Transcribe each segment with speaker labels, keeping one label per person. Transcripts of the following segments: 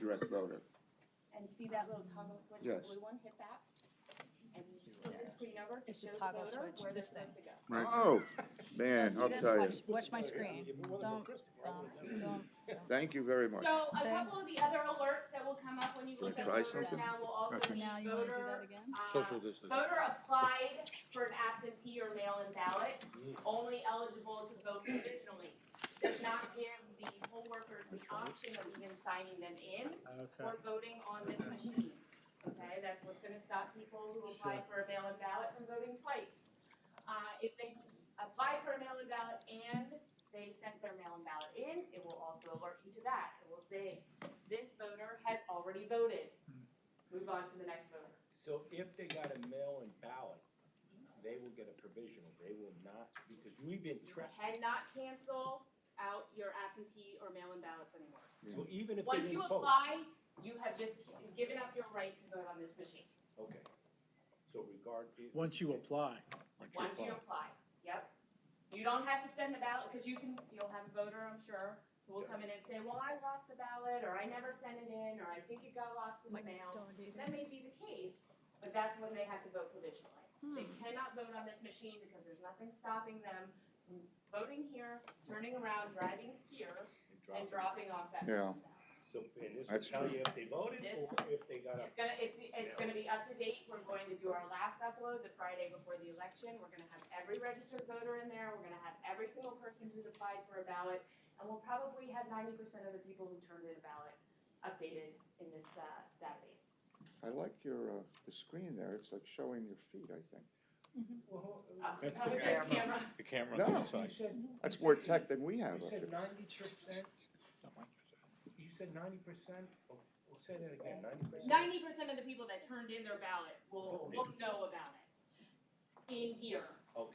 Speaker 1: direct loader.
Speaker 2: and see that little toggle switch, the
Speaker 1: Yes.
Speaker 2: blue one, hit that. And flip your screen over to
Speaker 3: It's a
Speaker 2: show the
Speaker 3: toggle
Speaker 2: voter
Speaker 3: switch,
Speaker 2: where they're
Speaker 3: this thing.
Speaker 2: supposed to go.
Speaker 1: Right. Oh, man,
Speaker 3: So
Speaker 1: I'll
Speaker 3: see this,
Speaker 1: tell you.
Speaker 3: watch- Watch my screen. Don't, don't, don't.
Speaker 1: Thank you very much.
Speaker 2: So a
Speaker 3: Say.
Speaker 2: couple of the other alerts that will come up when you
Speaker 1: Can I
Speaker 2: look at
Speaker 1: try
Speaker 2: voters
Speaker 1: something?
Speaker 2: now will also be
Speaker 3: Now you wanna do that
Speaker 2: voter,
Speaker 3: again?
Speaker 2: uh,
Speaker 4: Social distance.
Speaker 2: voter applied for an absentee or mail-in ballot,
Speaker 1: Mm.
Speaker 2: only eligible to vote provisionally. Does not give the poll workers the option of even signing them in
Speaker 5: Okay.
Speaker 2: or voting on this machine. Okay, that's what's gonna stop people who apply for a mail-in ballot from voting twice. Uh, if they apply for a mail-in ballot and they sent their mail-in ballot in, it will also alert you to that. It will say, this voter has already voted.
Speaker 6: Hmm.
Speaker 2: Move on to the next voter.
Speaker 6: So if they got a mail-in ballot, they will get a provisional, they will not, because we've been
Speaker 2: You
Speaker 6: trapped.
Speaker 2: cannot cancel out your absentee or mail-in ballots anymore.
Speaker 6: So even if they
Speaker 2: Once you
Speaker 6: didn't vote,
Speaker 2: apply, you have just given up your right to vote on this machine,
Speaker 6: okay. So regard. it-
Speaker 5: Once you apply.
Speaker 2: once you apply, yep. You don't have to send the ballot, because you can, you'll have a voter, I'm sure, who will come in and say, well, I lost the ballot, or I never sent it in, or I think it got lost in the mail.
Speaker 3: Don't do that.
Speaker 2: That may be the case, but that's when they have to vote provisionally.
Speaker 3: Hmm.
Speaker 2: They cannot vote on this machine because there's nothing stopping them from voting here, turning around, driving here,
Speaker 6: and
Speaker 2: and
Speaker 6: drop it.
Speaker 2: dropping off that.
Speaker 1: Yeah.
Speaker 6: So, and this will
Speaker 1: That's
Speaker 6: tell
Speaker 1: true.
Speaker 6: you if they voted
Speaker 2: This-
Speaker 6: or if they got a,
Speaker 2: It's gonna, it's, it's gonna be up to date, we're going to do our last upload the Friday before the election, we're gonna have every registered voter in there, we're gonna have every single person who's applied for a ballot, and we'll probably have ninety percent of the people who turned in a ballot updated in this, uh, database.
Speaker 1: I like your, uh, the screen there, it's like showing your feet, I think.
Speaker 6: well,
Speaker 2: Uh,
Speaker 4: That's the
Speaker 2: probably
Speaker 4: camera. The camera on
Speaker 1: No.
Speaker 4: the
Speaker 6: you
Speaker 4: side.
Speaker 6: said,
Speaker 1: That's more tech than we
Speaker 6: you
Speaker 1: have up here.
Speaker 6: said ninety percent, you said ninety percent, say that again, ninety percent?
Speaker 2: Ninety percent of the people that turned in their ballot will, will know about it in here.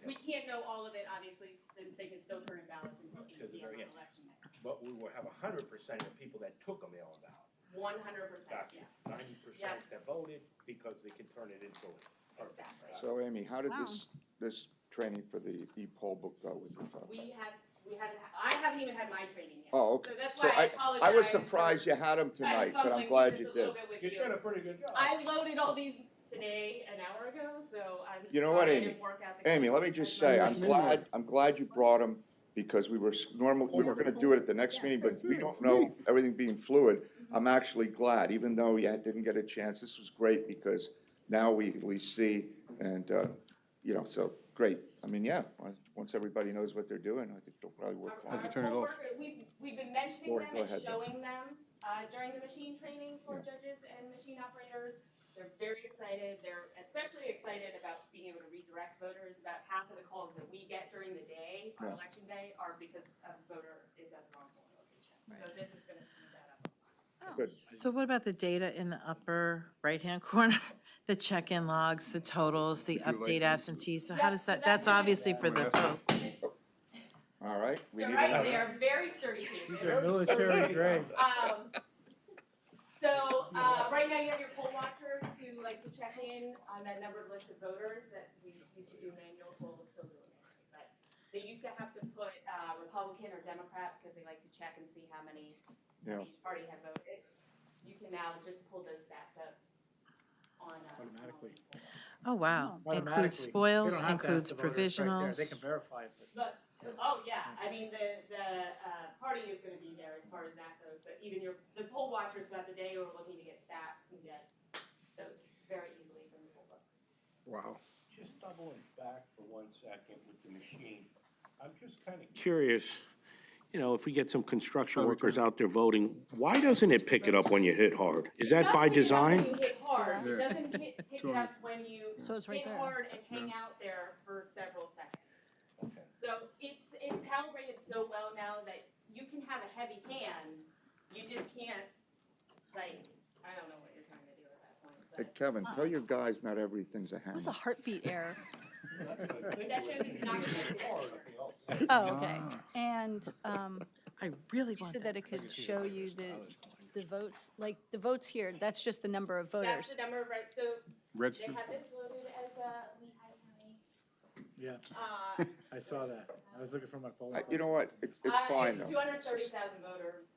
Speaker 2: We
Speaker 6: Okay,
Speaker 2: can't know all of it, obviously, since they can still turn in ballots until
Speaker 6: Till
Speaker 2: eight
Speaker 6: the
Speaker 2: P M on
Speaker 6: very end.
Speaker 2: election night.
Speaker 6: but we will have hundred percent of people that took a mail-in ballot.
Speaker 2: One hundred percent,
Speaker 6: Gotcha.
Speaker 2: yes,
Speaker 6: Ninety percent that voted because they can turn it into it. Perfect.
Speaker 2: exactly.
Speaker 1: So Amy, how did
Speaker 3: Wow.
Speaker 1: this, this training for the e-poll book go with your phone?
Speaker 2: We have, we haven't, I haven't even had my training yet.
Speaker 1: Oh, okay.
Speaker 2: So that's
Speaker 1: So
Speaker 2: why I apologize.
Speaker 1: I was surprised you had them
Speaker 2: I'm
Speaker 1: tonight, but
Speaker 2: fumbling
Speaker 1: I'm glad
Speaker 2: just
Speaker 1: you
Speaker 2: a little
Speaker 1: did.
Speaker 2: bit with
Speaker 6: You've done
Speaker 2: you.
Speaker 6: a pretty good job.
Speaker 2: I loaded all these today, an hour ago, so I'm
Speaker 1: You know what,
Speaker 2: sorry I
Speaker 1: Amy?
Speaker 2: didn't work out the
Speaker 1: Amy, let me
Speaker 2: kinks
Speaker 1: just
Speaker 2: as
Speaker 1: say,
Speaker 2: much.
Speaker 1: I'm glad, I'm glad you brought them because we were s- normal, we were gonna do it at the next meeting, but we don't know everything being fluid. I'm actually glad, even though you had- didn't get a chance, this was great because now we at least see and, uh, you know, so, great. I mean, yeah, on- once everybody knows what they're doing, I think they'll probably work
Speaker 2: Our-
Speaker 1: fine.
Speaker 2: our poll worker- We've, we've been mentioning
Speaker 1: Or
Speaker 2: them
Speaker 1: go
Speaker 2: and
Speaker 1: ahead.
Speaker 2: showing them, uh, during the machine training for judges and machine operators. They're very excited, they're especially excited about being able to redirect voters, about half of the calls that we get during the day, on
Speaker 1: Yeah.
Speaker 2: election day, are because a voter is at the wrong polling location. So this is gonna speed that up.
Speaker 1: Good.
Speaker 7: So what about the data in the upper right-hand corner? The check-in logs, the totals, the update absentees, so how does that, that's obviously for the vote.
Speaker 1: All right? we
Speaker 2: So
Speaker 1: need
Speaker 2: right
Speaker 1: another-
Speaker 2: there, very sturdy
Speaker 5: These
Speaker 2: people.
Speaker 5: are military grade.
Speaker 2: Um, so, uh, right now you have your poll watchers who like to check in on that numbered list of voters that we used to do manual, well, we'll still do it manually, but they used to have to put, uh, Republican or Democrat because they like to check and see how many
Speaker 1: Yeah.
Speaker 2: each party had voted. You can now just pull those stats up on, uh.
Speaker 5: Automatically.
Speaker 2: on-
Speaker 7: Oh, wow.
Speaker 5: Automatically.
Speaker 7: Includes
Speaker 5: They don't
Speaker 7: spoils,
Speaker 5: have to ask
Speaker 7: includes
Speaker 5: the voters right there.
Speaker 7: provisionals.
Speaker 5: They can verify it, but
Speaker 2: But, oh yeah, I mean, the, the, uh, party is gonna be there as far as that goes, but even your, the poll watchers throughout the day who are looking to get stats can get those very easily from the poll books.
Speaker 5: Wow.
Speaker 6: Just doubling back for one second with the machine. I'm just kind of
Speaker 8: curious, you know, if we get some construction workers out there voting, why doesn't it pick it up when you hit hard? Is that by
Speaker 2: It
Speaker 8: design?
Speaker 2: doesn't pick it up when you hit hard, it doesn't hit- pick it up when you
Speaker 3: So it's right
Speaker 2: hit
Speaker 3: there.
Speaker 2: hard and hang out there for several seconds.
Speaker 6: Okay.
Speaker 2: So it's, it's calibrated so well now that you can have a heavy hand, you just can't, like, I don't know what you're trying to do at that point,
Speaker 1: Hey,
Speaker 2: but.
Speaker 1: Kevin, tell your guys not everything's a
Speaker 3: It
Speaker 1: hammer.
Speaker 3: was a heartbeat error.
Speaker 2: That shows it's not gonna be hard.
Speaker 3: Oh, okay. And, um,
Speaker 7: I really
Speaker 3: you
Speaker 7: want
Speaker 3: said that
Speaker 7: that.
Speaker 3: it could show you the, the votes, like, the votes here, that's just the number of
Speaker 2: That's the
Speaker 3: voters.
Speaker 2: number of, right, so They
Speaker 9: Registered,
Speaker 2: have this loaded as a Lehigh County.
Speaker 5: Yeah,
Speaker 2: Uh,
Speaker 5: I saw that. I was looking for my polling.
Speaker 1: I- You know what, it's, it's
Speaker 2: uh,
Speaker 1: fine
Speaker 2: It's
Speaker 1: though.
Speaker 2: two hundred thirty thousand voters